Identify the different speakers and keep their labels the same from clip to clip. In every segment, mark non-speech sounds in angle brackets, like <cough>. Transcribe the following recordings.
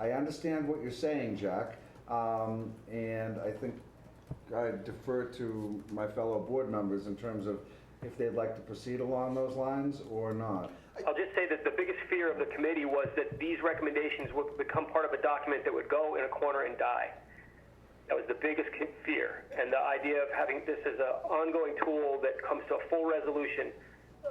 Speaker 1: I understand what you're saying, Jack, um, and I think I defer to my fellow board members in terms of if they'd like to proceed along those lines or not.
Speaker 2: I'll just say that the biggest fear of the committee was that these recommendations would become part of a document that would go in a corner and die. That was the biggest con- fear. And the idea of having this as an ongoing tool that comes to a full resolution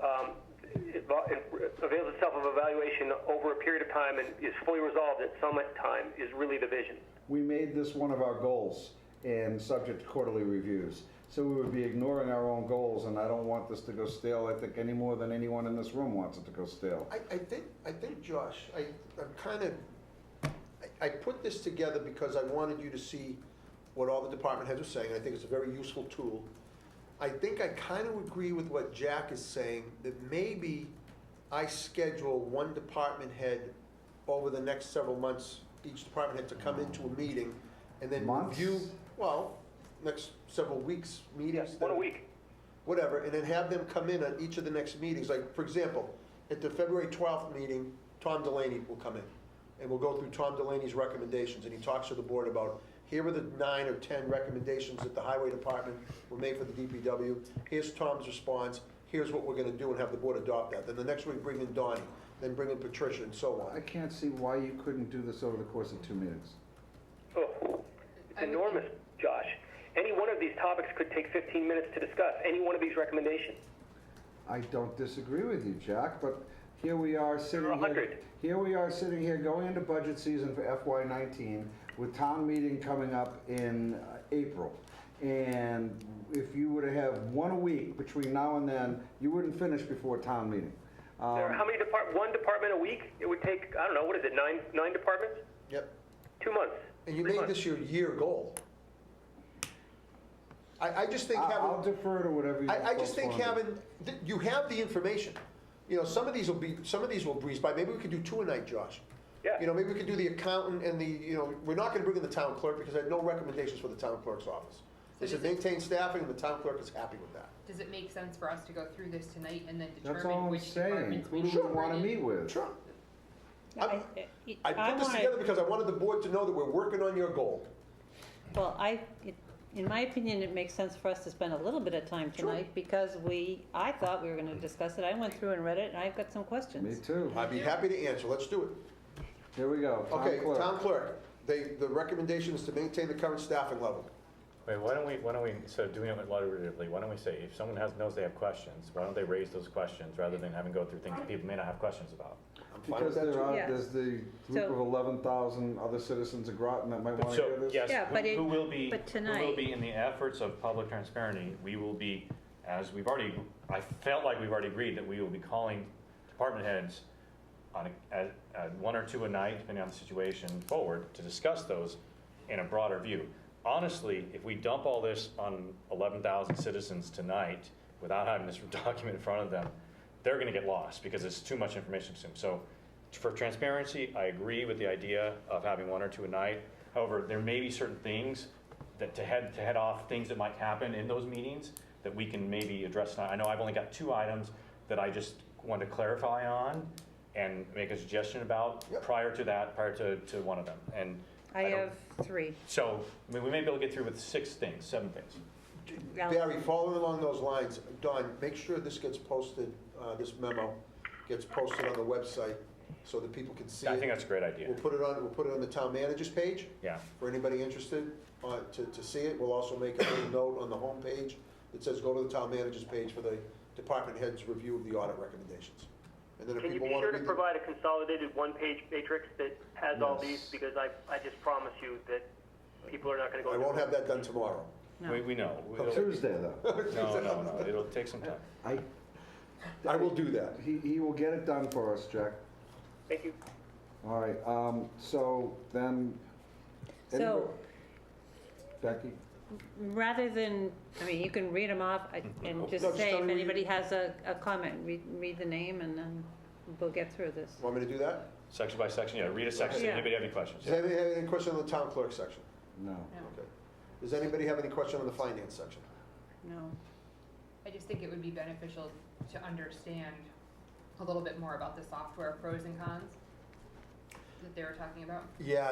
Speaker 2: um, it vo- it avails itself of evaluation over a period of time and is fully resolved at some time is really the vision.
Speaker 1: We made this one of our goals and subject to quarterly reviews. So we would be ignoring our own goals, and I don't want this to go stale, I think, any more than anyone in this room wants it to go stale.
Speaker 3: I, I think, I think, Josh, I, I'm kind of, I, I put this together because I wanted you to see what all the department heads are saying, and I think it's a very useful tool. I think I kind of agree with what Jack is saying, that maybe I schedule one department head over the next several months, each department head to come into a meeting, and then
Speaker 1: Months?
Speaker 3: review, well, next several weeks, meetings.
Speaker 2: One a
Speaker 3: that-
Speaker 2: week.
Speaker 3: whatever, and then have them come in on each of the next meetings. Like, for example, at the February 12th meeting, Tom Delaney will come in, and we'll go through Tom Delaney's recommendations, and he talks to the board about, here are the nine or 10 recommendations that the highway department will make for the DPW. Here's Tom's response, here's what we're gonna do, and have the board adopt that. Then the next week, bring in Donnie, then bring in Patricia, and so
Speaker 1: I
Speaker 3: on.
Speaker 1: can't see why you couldn't do this over the course of two meetings.
Speaker 2: Oh, it's
Speaker 4: I would-
Speaker 2: enormous, Josh. Any one of these topics could take 15 minutes to discuss, any one of these recommendations.
Speaker 1: I don't disagree with you, Jack, but here we are sitting
Speaker 2: There are
Speaker 1: here.
Speaker 2: 100.
Speaker 1: Here we are sitting here going into budget season for FY nineteen with town meeting coming up in uh, April. And if you were to have one a week between now and then, you wouldn't finish before town meeting. Um,
Speaker 2: There are how many depart, one department a week? It would take, I don't know, what is it, nine, nine departments?
Speaker 3: Yep.
Speaker 2: Two months?
Speaker 3: And you
Speaker 2: three
Speaker 3: made
Speaker 2: months.
Speaker 3: this your year goal. I, I just think
Speaker 1: I-
Speaker 3: having.
Speaker 1: I'll defer to whatever you.
Speaker 3: I, I
Speaker 1: folks
Speaker 3: just think
Speaker 1: wanna do.
Speaker 3: having, th- you have the information. You know, some of these will be, some of these will breeze by. Maybe we could do two a night, Josh.
Speaker 2: Yeah.
Speaker 3: You know, maybe we could do the accountant and the, you know, we're not gonna bring in the town clerk because I had no recommendations for the town clerk's office. They
Speaker 4: So
Speaker 3: said
Speaker 4: does it-
Speaker 3: maintain staffing and the town clerk is happy with that.
Speaker 4: Does it make sense for us to go through this tonight and then
Speaker 1: That's all
Speaker 4: determine
Speaker 1: I'm
Speaker 4: which
Speaker 1: saying.
Speaker 4: departments
Speaker 1: Who
Speaker 4: we
Speaker 1: do
Speaker 4: should
Speaker 1: we
Speaker 4: bring
Speaker 1: want to
Speaker 4: in?
Speaker 1: meet with?
Speaker 3: Sure.
Speaker 5: No, I-
Speaker 3: I put this
Speaker 5: wanna-
Speaker 3: together because I wanted the board to know that we're working on your goal.
Speaker 5: Well, I, it- in my opinion, it makes sense for us to spend a little bit of time tonight because we, I thought we were gonna discuss it. I went through and read it and I've got some
Speaker 1: Me
Speaker 5: questions.
Speaker 1: too.
Speaker 3: I'd be happy to answer. Let's do it.
Speaker 1: Here we go. Town
Speaker 3: Okay,
Speaker 1: clerk.
Speaker 3: town clerk, they, the recommendation is to maintain the current staffing level.
Speaker 6: Wait, why don't we, why don't we, so doing it iteratively, why don't we say, if someone has, knows they have questions, why don't they raise those questions rather than having go through things that people may not have questions about?
Speaker 3: I'm fine with
Speaker 1: Because
Speaker 3: that
Speaker 1: there
Speaker 3: too.
Speaker 1: are,
Speaker 5: Yeah.
Speaker 1: there's the group
Speaker 5: So-
Speaker 1: of eleven thousand other citizens of Groton that might want to hear
Speaker 6: So,
Speaker 1: this.
Speaker 6: yes,
Speaker 5: Yeah, but
Speaker 6: who-
Speaker 5: it-
Speaker 6: who will be,
Speaker 5: but
Speaker 6: who will
Speaker 5: tonight-
Speaker 6: be in the efforts of public transparency, we will be, as we've already, I felt like we've already agreed that we will be calling department heads on, a- at, at one or two a night, depending on the situation, forward to discuss those in a broader view. Honestly, if we dump all this on 11,000 citizens tonight without having this <laughs> document in front of them, they're going to get lost because it's too much information to them. So for transparency, I agree with the idea of having one or two a night. However, there may be certain things that to head, to head off things that might happen in those meetings that we can maybe address tonight. I know I've only got two items that I just want to clarify on and make a suggestion about
Speaker 3: Yep.
Speaker 6: prior to that, prior to, to one of them. And
Speaker 5: I
Speaker 6: don't-
Speaker 5: have three.
Speaker 6: So, I mean, we may be able to get through with six things, seven things.
Speaker 3: Barry, following along those lines, Don, make sure this gets posted, uh, this memo gets posted on the website so that people can see it.
Speaker 6: I think that's a great idea.
Speaker 3: We'll put it on, we'll put it on the town manager's page.
Speaker 6: Yeah.
Speaker 3: For anybody interested uh, to to see it. We'll also make a little note on the homepage that says, go to the town manager's page for the department head's review of the audit recommendations. And then if
Speaker 2: Can you
Speaker 3: people
Speaker 2: be
Speaker 3: want
Speaker 2: sure
Speaker 3: to
Speaker 2: to
Speaker 3: read them.
Speaker 2: provide a consolidated one-page matrix that has all these?
Speaker 1: Yes.
Speaker 2: Because I, I just promise you that people are not going to go.
Speaker 3: I won't have that done tomorrow.
Speaker 5: No.
Speaker 6: We, we know. It'll-
Speaker 1: Tuesday though.
Speaker 6: No, no, no, it'll take some time.
Speaker 1: I,
Speaker 3: I will do that.
Speaker 1: he, he will get it done for us, Jack.
Speaker 2: Thank you.
Speaker 1: All right, um, so then.
Speaker 5: So-
Speaker 1: Becky,
Speaker 5: Rather than, I mean, you can read them off I- and
Speaker 3: No,
Speaker 5: just
Speaker 3: just
Speaker 5: say
Speaker 3: tell
Speaker 5: if
Speaker 3: me-
Speaker 5: anybody has a, a comment, read, read the name and then we'll get through this.
Speaker 3: Want me to do that?
Speaker 6: Section by section, yeah, read a section,
Speaker 5: Yeah.
Speaker 6: anybody have any questions?
Speaker 3: Does anybody have any question on the town clerk section?
Speaker 1: no.
Speaker 3: Okay. Does anybody have any question on the finance section?
Speaker 5: No.
Speaker 4: I just think it would be beneficial to understand a little bit more about the software pros and cons. that they were talking about?
Speaker 3: Yeah,